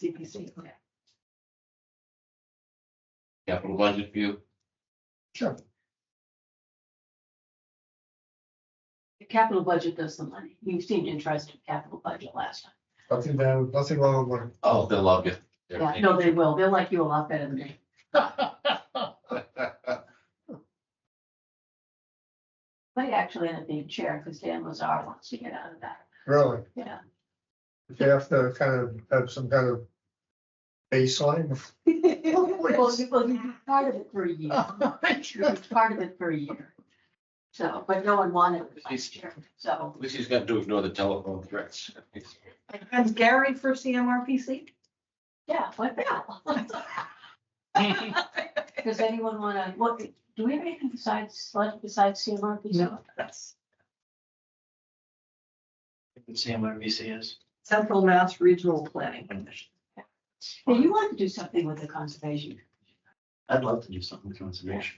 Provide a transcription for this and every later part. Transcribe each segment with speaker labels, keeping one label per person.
Speaker 1: you see.
Speaker 2: Capital budget view,
Speaker 3: Sure.
Speaker 1: The capital budget does the money. You seemed interested in capital budget last time.
Speaker 3: Nothing down, nothing wrong with it.
Speaker 2: oh, they love you. They're
Speaker 1: Yeah, no, they will. They'll like you a lot better than me. But actually end up being chair because Dan Lazar wants to get out of that.
Speaker 3: Really,
Speaker 1: Yeah.
Speaker 3: you have to kind of have some kind of baseline.
Speaker 1: Well, you- well, you be part of it for a
Speaker 3: Oh.
Speaker 1: year. You be part of it for a year. So, but no one wanted it last year. So
Speaker 2: At least he's got to ignore the telephone threats.
Speaker 4: Has Gary for CMRPC?
Speaker 1: yeah, what the hell? Does anyone want to, what, do we have anything besides, select besides CMRPC?
Speaker 4: No, that's
Speaker 5: CMRPC is.
Speaker 4: Central Mass Regional Planning Commission.
Speaker 1: Yeah, you want to do something with the conservation.
Speaker 5: I'd love to do something with conservation.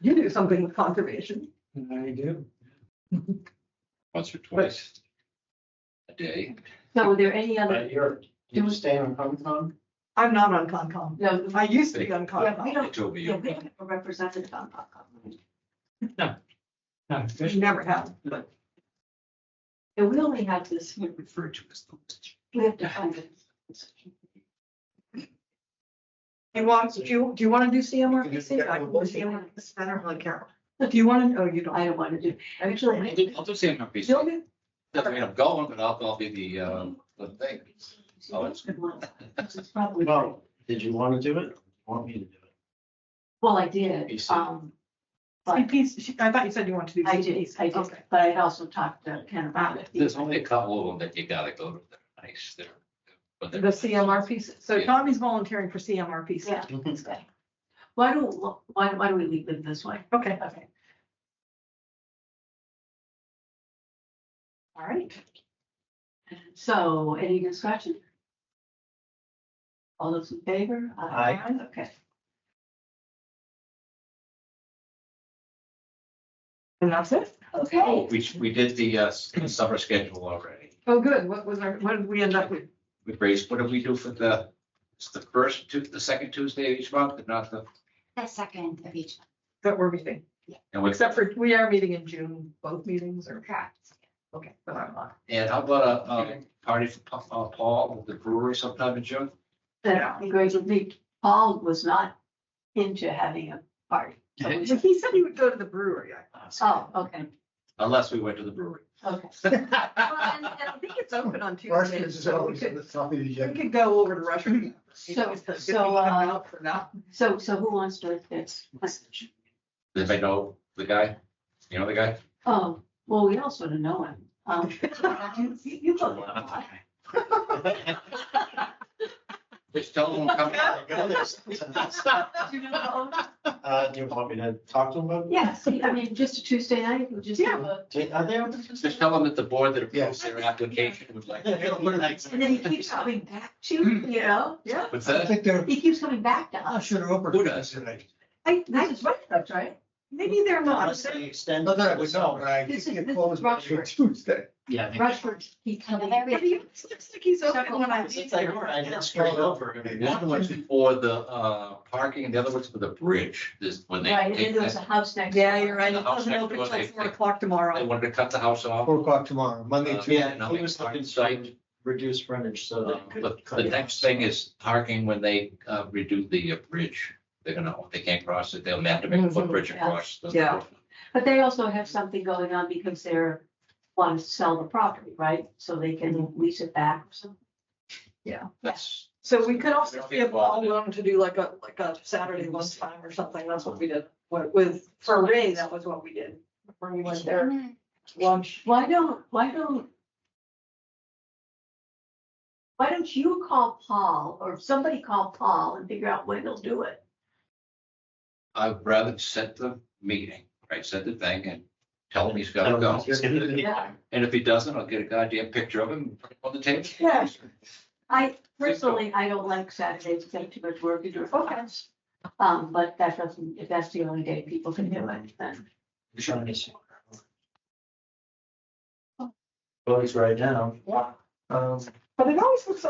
Speaker 4: You do something with conservation.
Speaker 3: I do.
Speaker 2: Once or twice. A day.
Speaker 1: So are there any other,
Speaker 5: But you're, you staying on Concom?
Speaker 4: I'm not on Concom.
Speaker 1: no,
Speaker 4: I used to be on
Speaker 1: yeah, we
Speaker 4: Concom.
Speaker 2: They
Speaker 1: don't,
Speaker 2: told me
Speaker 1: yeah,
Speaker 2: you.
Speaker 1: we don't have a representative on Concom.
Speaker 5: No.
Speaker 4: Never have, but
Speaker 1: And we only have this, we
Speaker 5: Referred to as. the-
Speaker 1: we have to find it.
Speaker 4: you want, do you, do you want to do CMRPC? I can do CMRPC. I don't really care. Do you want to, oh, you
Speaker 1: I
Speaker 4: don't.
Speaker 1: don't want to do, actually, I
Speaker 2: I'll do CMRPC.
Speaker 4: You'll do-
Speaker 2: Doesn't mean I'm going, but I'll, I'll be the, uh, the thing.
Speaker 1: So that's good one. This is probably,
Speaker 5: Well, did you want to do it? Want me to do it?
Speaker 1: well, I
Speaker 2: You
Speaker 1: did,
Speaker 2: see.
Speaker 1: um, but
Speaker 4: CPC I thought you said you wanted to do.
Speaker 1: I did, I did,
Speaker 4: Okay.
Speaker 1: but I also talked to Ken about it.
Speaker 2: There's only a couple of them that you gotta go to. They're nice. They're. but
Speaker 4: The
Speaker 2: they're-
Speaker 4: CMRPC, so
Speaker 2: Yeah.
Speaker 4: Tommy's volunteering for CMRPC.
Speaker 1: Yeah, okay. Why don't, why, why do we leave it this way?
Speaker 4: Okay,
Speaker 1: Okay,
Speaker 4: all right.
Speaker 1: so any discussion? All those in favor? Okay.
Speaker 4: And that's it?
Speaker 1: Okay.
Speaker 2: Oh, We, we did the, uh, summer schedule already.
Speaker 4: Oh, good. What was our, what did we end up with?
Speaker 2: We raised, what do we do for the, it's the first, Tu- the second Tuesday of each month, but not the,
Speaker 6: The second of each,
Speaker 4: That we're meeting,
Speaker 2: and we,
Speaker 4: except for, we are meeting in June, both meetings are,
Speaker 6: correct?
Speaker 4: okay. so I'm on.
Speaker 2: and how about a, um, party for Pa- uh, Paul with the brewery sometime in June?
Speaker 1: That'd be great. It'd be- Paul was not into having a party. so we
Speaker 4: But
Speaker 1: should-
Speaker 4: he said he would go to the brewery. I-
Speaker 1: Oh, okay,
Speaker 2: Unless we went to the brewery.
Speaker 1: okay.
Speaker 4: Well, and- and I think it's open on Tuesday,
Speaker 3: Russians is
Speaker 4: so we
Speaker 3: always at
Speaker 4: could,
Speaker 3: the top of the
Speaker 4: we
Speaker 3: agenda.
Speaker 4: could go over to Russia.
Speaker 1: So-
Speaker 4: If we could
Speaker 1: so,
Speaker 4: come
Speaker 1: uh,
Speaker 4: out For that.
Speaker 1: So, so who wants to, it's,
Speaker 2: Does anybody know the guy? You know the guy?
Speaker 1: oh, well, we all sort of know him. Um, you- You go there a lot.
Speaker 2: Just tell him come.
Speaker 1: You know,
Speaker 5: Uh, do you want me to talk to him about? it?
Speaker 1: Yes, I mean, just a Tuesday night, we'll just have a,
Speaker 5: Do- Are they? open?
Speaker 2: Just tell him that the board that approves their application would like.
Speaker 1: and then he keeps coming back to, you you know?
Speaker 4: Yeah.
Speaker 2: What's
Speaker 3: I
Speaker 2: that?
Speaker 3: think they're,
Speaker 1: He keeps coming back to
Speaker 3: I
Speaker 1: us.
Speaker 3: should have opened.
Speaker 2: Who does?
Speaker 3: today.
Speaker 4: I,
Speaker 1: This is right, that's right.
Speaker 4: maybe they're not.
Speaker 5: Unless they extend.
Speaker 3: Not that I would know, but I
Speaker 1: This
Speaker 3: think
Speaker 1: is-
Speaker 3: it
Speaker 1: this
Speaker 3: closed
Speaker 1: is
Speaker 3: by
Speaker 1: Rushford.
Speaker 3: Tuesday.
Speaker 5: Yeah. I think-
Speaker 1: Rushford, he's coming.
Speaker 6: Well, there
Speaker 4: But he looks like he's open when I leave.
Speaker 5: It's like, all right, it's straight over. I mean,
Speaker 2: One was for the uh, parking, and the other was for the bridge, this, when they.
Speaker 1: Right, and then there was a house next.
Speaker 4: Yeah,
Speaker 1: door.
Speaker 4: you're right. It
Speaker 2: I'll
Speaker 4: doesn't
Speaker 2: check
Speaker 4: open
Speaker 2: what
Speaker 4: until
Speaker 2: they
Speaker 4: four
Speaker 2: think.
Speaker 4: o'clock
Speaker 2: They
Speaker 4: tomorrow.
Speaker 2: wanted to cut the house off.
Speaker 3: Four o'clock tomorrow, Monday,
Speaker 2: Uh,
Speaker 3: Tuesday.
Speaker 5: Yeah, no, he was looking to reduce frontage so
Speaker 2: Um,
Speaker 5: that.
Speaker 2: But the next thing is parking when they uh, redo the uh, bridge. They're gonna, if they can't cross it, they'll have to make a footbridge
Speaker 1: Mhm,
Speaker 2: across. the-
Speaker 4: yeah.
Speaker 1: But they also have something going on because they're, want to sell the property, right? So they can lease it back or something.
Speaker 2: That's,
Speaker 4: So we could also give all alone to do like a, like a Saturday lunchtime or something. That's what we did. What with, for Ray, that was what we did. When we went there, lunch.
Speaker 1: Why don't, why don't? Why don't you call Paul or somebody call Paul and figure out when they'll do it?
Speaker 2: I'd rather set the meeting, right, set the thing and tell him he's
Speaker 5: I
Speaker 2: gotta
Speaker 5: don't know,
Speaker 2: go.
Speaker 5: it's gonna be-
Speaker 1: Yeah.
Speaker 2: And if he doesn't, I'll get a goddamn picture of him and put it on the table.
Speaker 1: Yeah. I personally, I don't like Saturdays, it's got too much work to do for us. Um, but that doesn't, if that's the only day people can do it, then.
Speaker 5: Well, he's right now.
Speaker 1: Yeah.
Speaker 5: Um,
Speaker 3: Um,
Speaker 4: But it always looks